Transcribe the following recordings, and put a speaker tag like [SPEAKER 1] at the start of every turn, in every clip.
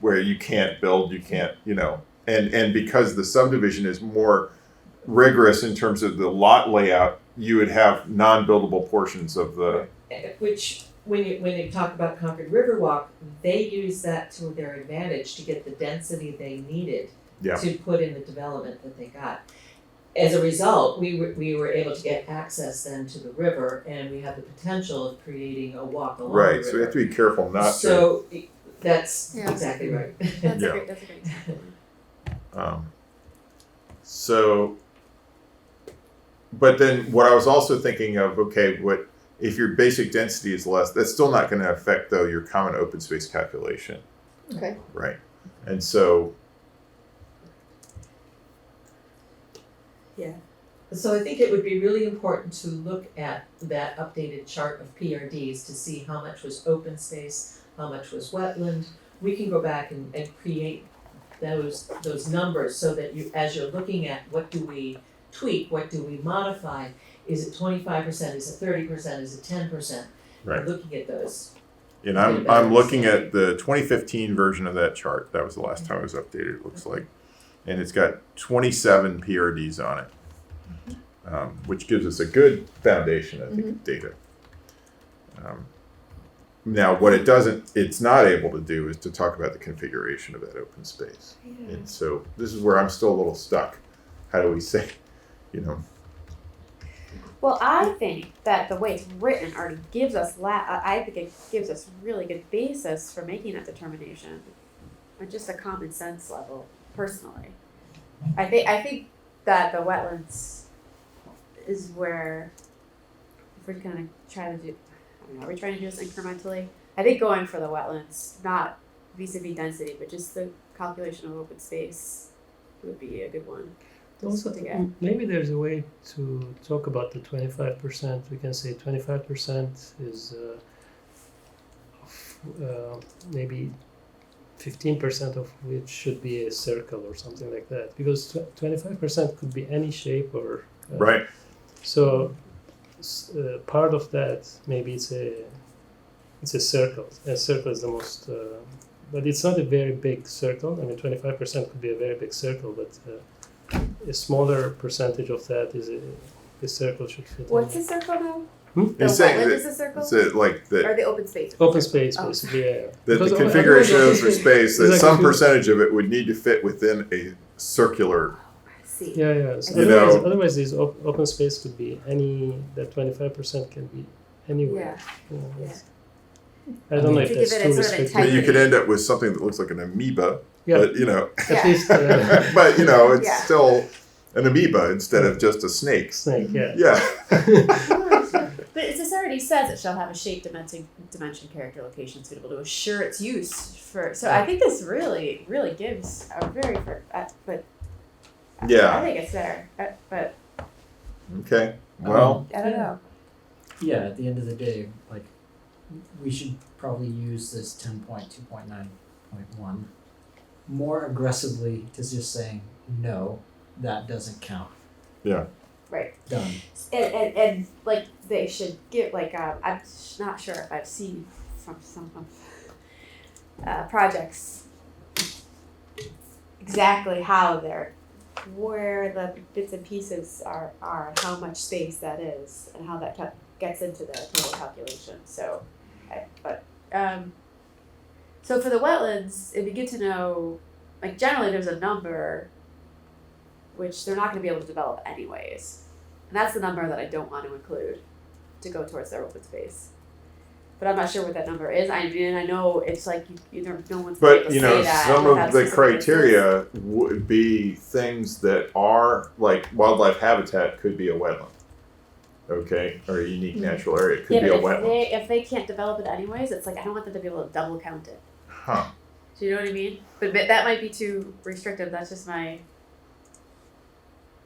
[SPEAKER 1] where you can't build, you can't, you know, and and because the subdivision is more rigorous in terms of the lot layout, you would have non-buildable portions of the
[SPEAKER 2] Uh, Which, when you, when you talk about Concord Riverwalk, they use that to their advantage to get the density they needed
[SPEAKER 1] Yeah.
[SPEAKER 2] to put in the development that they got. As a result, we were, we were able to get access then to the river and we have the potential of creating a walk along the river.
[SPEAKER 1] right. So we have to be careful not to.
[SPEAKER 2] So, i- that's
[SPEAKER 3] Yeah.
[SPEAKER 2] exactly right.
[SPEAKER 3] That's
[SPEAKER 1] Yeah.
[SPEAKER 3] a great, that's a great.
[SPEAKER 1] Um, so, but then what I was also thinking of, okay, what if your basic density is less? That's still not going to affect though your common open space calculation.
[SPEAKER 3] Okay.
[SPEAKER 1] Right. And so
[SPEAKER 2] So I think it would be really important to look at that updated chart of PRDs to see how much was open space, how much was wetland. We can go back and, and create those, those numbers so that you, as you're looking at what do we tweak, what do we modify? Is it twenty-five percent, is it thirty percent, is it ten percent?
[SPEAKER 1] Right.
[SPEAKER 2] Looking at those.
[SPEAKER 1] And I'm, I'm looking at the 2015 version of that chart. That was the last time it was updated, it looks like. And it's got 27 PRDs on it, um, which gives us a good foundation, I think, of data. Um, now, what it doesn't, it's not able to do is to talk about the configuration of that open space. And so this is where I'm still a little stuck. How do we say, you know,
[SPEAKER 3] Well, I think that the way it's written already gives us la- uh, I I think it gives us really good basis for making that determination, on just a common sense level, personally. I think I think that the wetlands is where if we're gonna try to do, I don't know, are we trying to do this incrementally? I think going for the wetlands, not vis-a-vis density, but just the calculation of open space would be a good one. to
[SPEAKER 4] Also,
[SPEAKER 3] put together.
[SPEAKER 4] m- maybe there's a way to talk about the twenty-five percent, we can say twenty-five percent is uh, of, uh, maybe fifteen percent of which should be a circle or something like that, because twenty-five percent could be any shape or. uh,
[SPEAKER 1] right?
[SPEAKER 4] So, s- uh, part of that maybe it's a it's a circle. A circle is the most, uh, but it's not a very big circle. I mean, twenty five percent could be a very big circle, but uh, a smaller percentage of that is a, a circle should fit. in
[SPEAKER 3] What's
[SPEAKER 4] there.
[SPEAKER 3] a circle now?
[SPEAKER 4] Hmm?
[SPEAKER 3] The
[SPEAKER 1] It's saying
[SPEAKER 3] wetland
[SPEAKER 1] that-
[SPEAKER 3] is a circle?
[SPEAKER 1] It's a, like the,
[SPEAKER 3] Or the open space?
[SPEAKER 4] Open space,
[SPEAKER 3] Oh.
[SPEAKER 4] basically. Yeah.
[SPEAKER 1] that
[SPEAKER 4] Because
[SPEAKER 1] the
[SPEAKER 4] o- otherwise
[SPEAKER 1] configuration of
[SPEAKER 4] it's-
[SPEAKER 1] for space that
[SPEAKER 4] It's like
[SPEAKER 1] some
[SPEAKER 4] if you-
[SPEAKER 1] percentage of it would need to fit within a circular
[SPEAKER 3] See.
[SPEAKER 4] Yeah, yeah. So
[SPEAKER 1] You
[SPEAKER 4] otherwise,
[SPEAKER 1] know-
[SPEAKER 4] otherwise, these op- open space could be any. That twenty five percent can be anywhere.
[SPEAKER 3] Yeah.
[SPEAKER 4] you know,
[SPEAKER 3] Yeah.
[SPEAKER 4] it's- I don't know
[SPEAKER 3] To
[SPEAKER 4] if
[SPEAKER 3] give
[SPEAKER 4] that's
[SPEAKER 3] it a sort
[SPEAKER 4] too
[SPEAKER 3] of
[SPEAKER 4] restrictive.
[SPEAKER 1] but you could
[SPEAKER 3] Integrity.
[SPEAKER 1] end up with something that looks like an amoeba
[SPEAKER 4] Yeah.
[SPEAKER 1] but you know
[SPEAKER 4] At
[SPEAKER 3] Yeah.
[SPEAKER 4] least uh,
[SPEAKER 1] but you know it's
[SPEAKER 3] Yeah.
[SPEAKER 1] still an amoeba instead of just a snake
[SPEAKER 4] snake. Yeah.
[SPEAKER 1] yeah
[SPEAKER 3] But it just already says it shall have a shape, dimension, dimension, character, location suitable to assure its use for. So I think this really, really gives a very, fir- uh, but. I-
[SPEAKER 1] Yeah.
[SPEAKER 3] I think it's there, uh, but
[SPEAKER 1] okay well
[SPEAKER 3] I don't know.
[SPEAKER 5] Yeah, at the end of the day, like, we should probably use this ten point two point nine point one more aggressively to just saying, no, that doesn't count,
[SPEAKER 3] Right.
[SPEAKER 5] done.
[SPEAKER 3] And, and, and like they should give like um, I'm sh- not sure if I've seen from some of uh, projects exactly how they're where the bits and pieces are are and how much space that is and how that cal- gets into the total calculation. So, I, but um, so for the wetlands, it'd be good to know. Like generally, there's a number which they're not going to be able to develop anyways. And that's the number that I don't want to include to go towards their open space. But I'm not sure what that number is. I mean, I know it's like you, you know, no one's gonna be able
[SPEAKER 1] but
[SPEAKER 3] to
[SPEAKER 1] you know
[SPEAKER 3] say that
[SPEAKER 1] some
[SPEAKER 3] without
[SPEAKER 1] of the
[SPEAKER 3] specific instance.
[SPEAKER 1] criteria would be things that are like wildlife habitat could be a wetland okay or a unique natural area it could
[SPEAKER 3] Mm-hmm. Yeah,
[SPEAKER 1] be
[SPEAKER 3] but
[SPEAKER 1] a wetland
[SPEAKER 3] if they if they can't develop it anyways, it's like I don't want them to be able to double count it.
[SPEAKER 1] huh
[SPEAKER 3] Do you know what I mean? But, but that might be too restrictive. That's just my.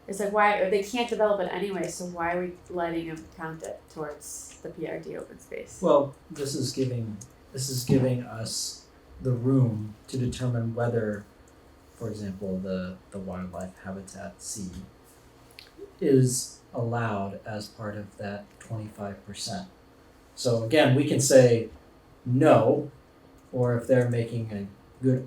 [SPEAKER 3] It's like why or they can't develop it anyway, so why are we letting them count it towards the PRD open space?
[SPEAKER 5] Well, this is giving, this is giving us the room to determine whether, for example, the, the wildlife habitat C is allowed as part of that twenty-five percent. So again, we can say no, or if they're making a good